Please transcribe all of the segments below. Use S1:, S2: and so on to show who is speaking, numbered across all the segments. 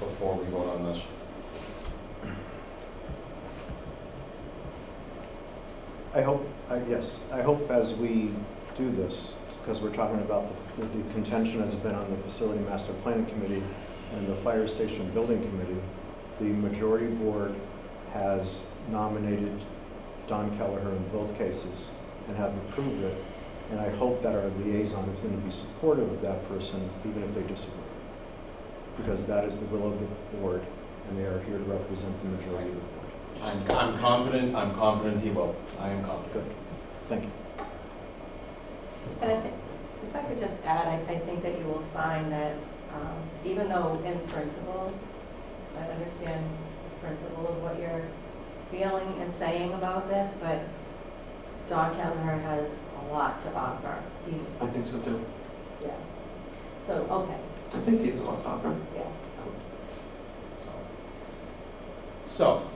S1: before we vote on this.
S2: I hope, I, yes, I hope as we do this, because we're talking about the, the contention has been on the Facility Master Planning Committee and the Fire Station Building Committee, the majority board has nominated Don Kelleher in both cases and have approved it. And I hope that our liaison is going to be supportive of that person, even if they disagree. Because that is the will of the board, and they are here to represent the majority of the board.
S1: I'm, I'm confident, I'm confident he will. I am confident.
S2: Good, thank you.
S3: And I think, if I could just add, I, I think that you will find that, um, even though in principle, I understand the principle of what you're feeling and saying about this, but Don Kelleher has a lot to offer. He's,
S4: I think so too.
S3: yeah. So, okay,
S4: I think he has a lot to offer.
S3: yeah.
S1: So,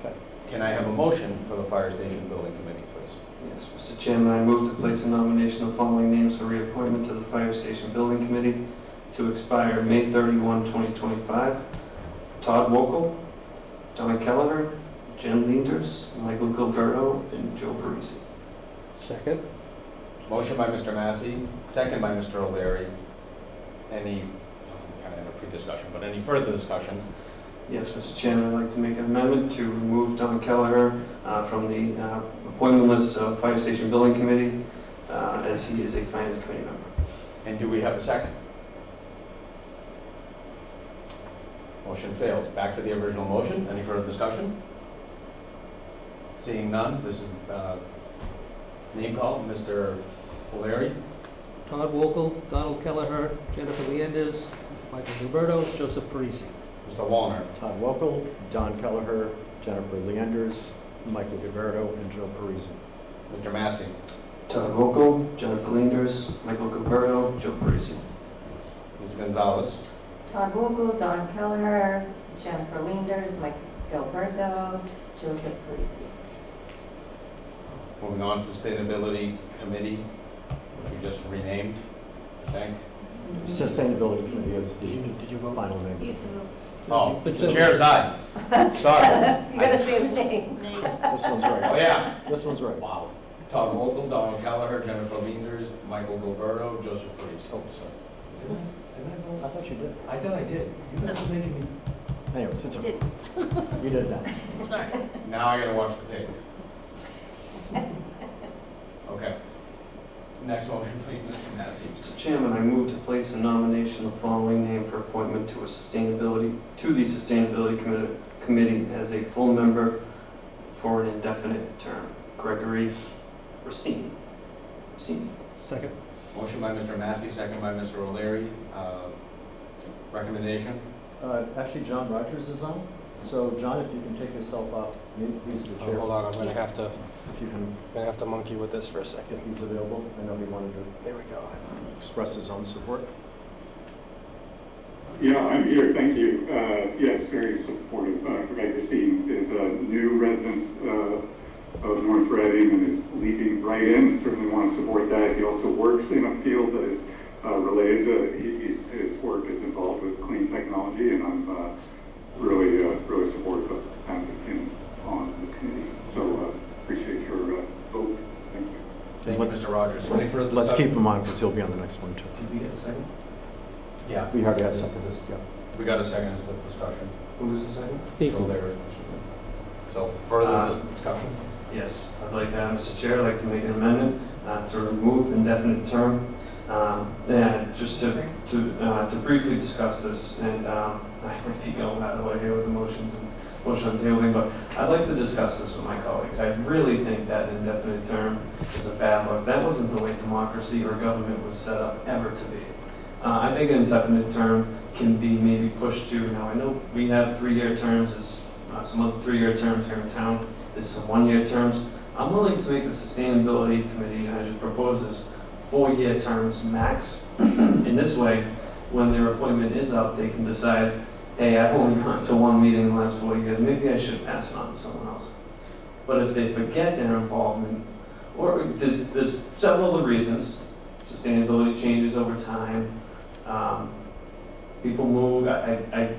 S2: Okay.
S1: can I have a motion for the fire station building committee, please?
S4: Yes, Mr. Chairman, I move to place a nomination of the following names for reappointment to the Fire Station Building Committee to expire May 31, 2025. Todd Wokel, Don Kelleher, Jen Leanders, Michael Gilberto, and Joe Parisi.
S5: Second?
S1: Motion by Mr. Massey, second by Mr. O'Leary. Any, um, kind of had a pre-discussion, but any further discussion?
S4: Yes, Mr. Chairman, I'd like to make an amendment to remove Don Kelleher uh, from the uh, appointment list of Fire Station Building Committee, uh, as he is a Finance Committee member.
S1: And do we have a second? Motion fails. Back to the original motion. Any further discussion? Seeing none, this is, uh, name call, Mr. O'Leary.
S5: Todd Wokel, Donald Kelleher, Jennifer Leanders, Michael Gilberto, Joseph Parisi.
S1: Mr. Wallner.
S2: Todd Welkel, Don Kelleher, Jennifer Leanders, Michael Gilberto, and Joe Parisi.
S1: Mr. Massey.
S4: Todd Wokel, Jennifer Leanders, Michael Gilberto, Joe Parisi.
S1: Ms. Gonzalez.
S3: Todd Vogel, Don Kelleher, Jennifer Leanders, Mike Gilberto, Joseph Parisi.
S1: Moving on, Sustainability Committee, which we just renamed, I think.
S2: Sustainability Committee is the
S5: did you
S2: final name.
S3: You do,
S1: Oh,
S5: But
S1: the
S5: just-
S1: chair's aye. Sorry.
S3: you gotta say the name.
S2: This one's
S1: Oh,
S2: right,
S1: yeah.
S2: this one's right.
S1: Wow. Todd Vogel, Donald Gallagher, Jennifer Leanders, Michael Gilberto, Joseph Priest. Oh, sorry.
S2: I thought you did.
S1: I thought I did. You guys was making me.
S2: Anyways, it's okay. You did that.
S1: Now I gotta watch the tape. Okay. Next motion, please, Mr. Massey.
S4: Mr. Chairman, I move to place a nomination of the following name for appointment to a sustainability, to the Sustainability Committee, Committee as a full member for an indefinite term. Gregory Racine. Racine.
S5: Second?
S1: Motion by Mr. Massey, second by Mr. O'Leary. Uh, Recommendation?
S2: Uh, Actually, John Rogers is on, so John, if you can take yourself off, mute, he's the chair,
S5: Oh, on, I'm gonna have to,
S2: if you can,
S5: gonna have to monkey with this for a second.
S2: if he's available. I know he wanted to
S5: There we go.
S2: express his own support.
S6: Yeah, I'm here, thank you. Uh, Yes, very supportive. Uh, Greg Racine is a new resident uh, of North Reading and is leaping right in, and certainly want to support that. He also works in a field that is uh, related to, he- he's- his work is involved with clean technology, and I'm uh, really, uh, really supportive of having him on the committee. So uh, appreciate your uh, vote, thank you.
S1: Thank you, Mr. Rogers. Any further
S2: Let's keep
S1: discussion?
S2: him on, because he'll be on the next one, too.
S4: Did we get a second?
S1: Yeah.
S2: We already had some of this, yeah.
S1: We got a second, it's a discussion.
S4: Who was the second?
S1: So there- So
S2: Uh,
S1: further dis- discussion?
S4: Yes, I'd like, uh, Mr. Chair, I'd like to make an amendment uh, to remove indefinite term. Um, And just to to, uh, to briefly discuss this, and um, I might be going out of the way here with the motions and motion on tabling, but I'd like to discuss this with my colleagues. I really think that indefinite term is a bad look. That wasn't the way democracy or government was set up ever to be. Uh, I think an indefinite term can be maybe pushed to, now I know we have three-year terms, there's uh, some other three-year terms here in town, there's some one-year terms. I'm willing to make the sustainability committee, and I just propose this, four-year terms max. In this way, when their appointment is up, they can decide, hey, I've only gone to one meeting in the last four years, maybe I should pass it on to someone else. But if they forget their involvement, or there's, there's several other reasons, sustainability changes over time, um, people move, I, I- I